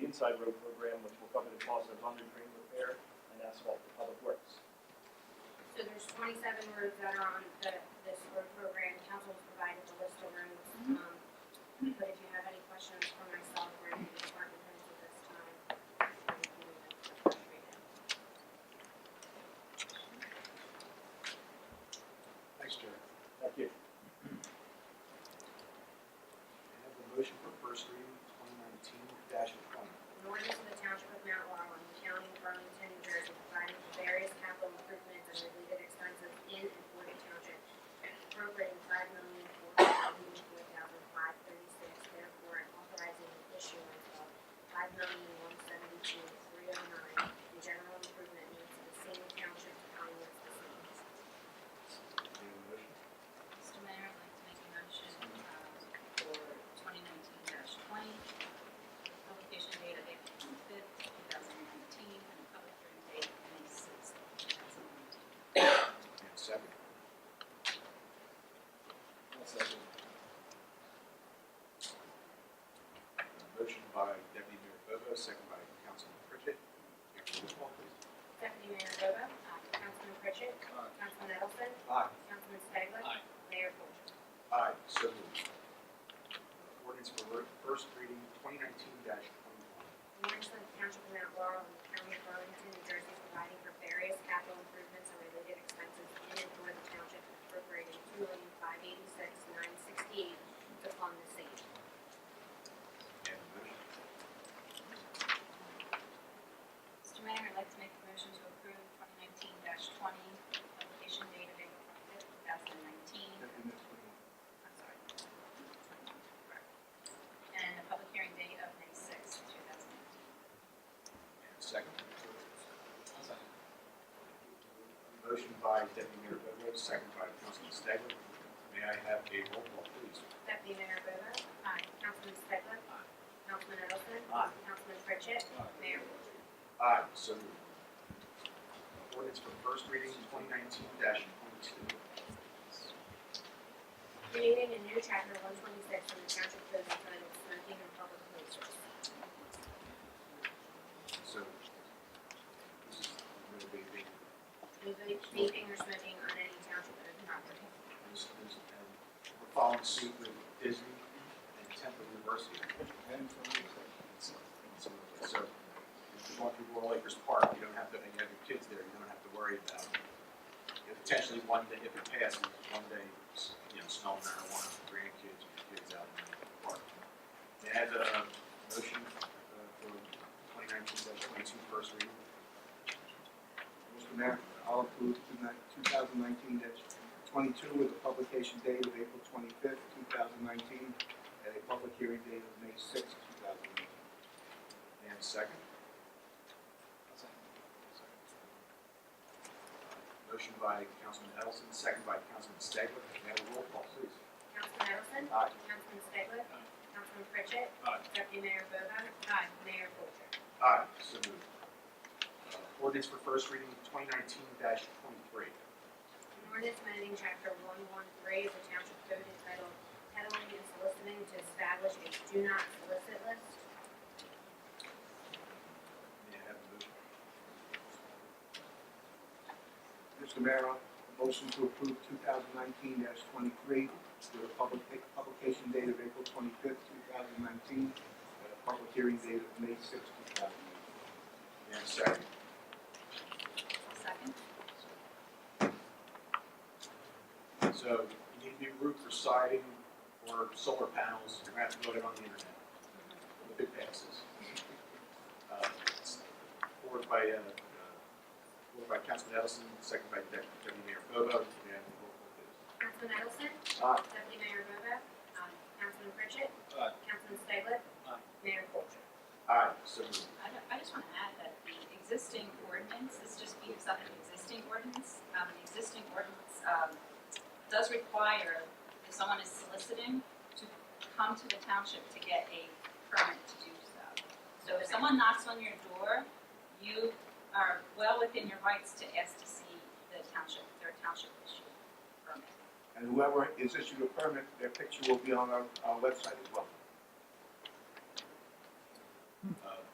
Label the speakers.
Speaker 1: inside road program, which will cover the cost of underdrain repair and asphalt for public works.
Speaker 2: So there's twenty-seven roads that are on the, this road program, council has provided the list of roads. Um, But if you have any questions for myself or any of the department heads at this time, you can feel free to.
Speaker 3: Thanks, Jerry.
Speaker 1: Thank you.
Speaker 3: I have the motion for first reading, twenty nineteen twenty.
Speaker 2: An ordinance of the Township of Mount Laurel in the County of Burlington, New Jersey, providing for various capital improvements and related expenses in and for the township, appropriating five million four hundred eighty-four thousand five thirty-six, therefore, and authorizing the issuance of five million one seventy-two three oh nine in general improvement needs of the same township to finance the same.
Speaker 3: Need a motion?
Speaker 4: Mr. Mayor, I'd like to make a motion um, for twenty nineteen twenty. Publication date of April fifth, two thousand nineteen, and public hearing date of May sixth, two thousand nineteen.
Speaker 3: Need a second? A Motion by Deputy Mayor Bobo, second by Councilman Pritchett. Can we roll call, please?
Speaker 2: Deputy Mayor Bobo? Councilman Pritchett? Councilman Edelson?
Speaker 3: Aye.
Speaker 2: Councilman Staglitt?
Speaker 5: Aye.
Speaker 2: Mayor Coulter?
Speaker 3: Aye, so moved. Uh, Ordinance for ver- first reading, twenty nineteen twenty-one.
Speaker 2: Ordinance of the Township of Mount Laurel in the County of Burlington, New Jersey, providing for various capital improvements and related expenses in and for the township and appropriating two million five eighty-six nine sixty-eight to fund the same.
Speaker 3: Need a motion?
Speaker 4: Mr. Mayor, I'd like to make a motion to approve twenty nineteen twenty. Publication date of April fifth, two thousand nineteen. I'm sorry. 21, correct. And a public hearing date of May sixth, two thousand nineteen.
Speaker 3: And a second?
Speaker 5: I'll second.
Speaker 3: Motion by Deputy Mayor Bobo, second by Councilman Staglitt. May I have a roll call, please?
Speaker 2: Deputy Mayor Bobo? Aye. Councilman Staglitt? Aye. Councilman Edelson?
Speaker 1: Aye.
Speaker 2: Councilman Pritchett?
Speaker 5: Aye.
Speaker 2: Mayor Coulter?
Speaker 3: Aye, so moved. Ordinance for first reading, twenty nineteen twenty-two.
Speaker 2: Creating a new chapter one twenty-six in the township code entitled smoking in public places.
Speaker 3: So this is going to be big.
Speaker 2: Including vaping or smoking on any township owned property.
Speaker 3: This is, um, we're following suit with Disney and Temple University. So, so if you walk through Royal Acres Park, you don't have to, and you have your kids there, you don't have to worry about, you know, potentially one day, if it passes, one day, s- you know, smell marijuana, for grandkids, your kids out in the park. May I have a motion uh, for twenty nineteen twenty-two first reading?
Speaker 6: Mr. Mayor, I'll approve 2019-22 with a publication date of April 25th, 2019, and a public hearing date of May 6th, 2019.
Speaker 3: May I have a second?
Speaker 5: I'll second.
Speaker 3: Motion by Councilman Edelson, second by Councilman Stegler. May I have a roll call, please?
Speaker 2: Councilman Edelson?
Speaker 3: Aye.
Speaker 2: Councilman Staglitt?
Speaker 5: Aye.
Speaker 2: Councilman Pritchett?
Speaker 5: Aye.
Speaker 2: Deputy Mayor Bobo? Aye. Mayor Coulter?
Speaker 3: Aye. So moved. Uh, Ordinance for first reading, twenty nineteen twenty-three.
Speaker 2: An ordinance amending chapter one one three of the township code entitled peddling and soliciting to establish a do not solicit list.
Speaker 3: May I have a motion?
Speaker 6: Mr. Mayor, a motion to approve 2019-23 with a public, publication date of April 25th, 2019, and a public hearing date of May 6th, 2019.
Speaker 3: May I have a second?
Speaker 4: Second.
Speaker 3: So you need new roof for siding or solar panels, you're gonna have to vote it on the internet. If it passes. Uh, it's Ordered by, uh, uh, ordered by Councilman Edelson, second by Dep- Deputy Mayor Bobo. May I have a roll call, please?
Speaker 2: Councilman Edelson?
Speaker 3: Aye.
Speaker 2: Deputy Mayor Bobo? Aye. Councilman Pritchett?
Speaker 5: Aye.
Speaker 2: Councilman Staglitt?
Speaker 5: Aye.
Speaker 2: Mayor Coulter?
Speaker 3: Aye, so moved.
Speaker 4: I don't- I just want to add that the existing ordinance, this just beefs up an existing ordinance. Um, the existing ordinance, um, does require, if someone is soliciting, to come to the township to get a permit to do so. So if someone knocks on your door, you are well within your rights to ask to see the township, their township issue permit.
Speaker 6: And whoever is issued a permit, their picture will be on our, our website as well.
Speaker 3: Uh,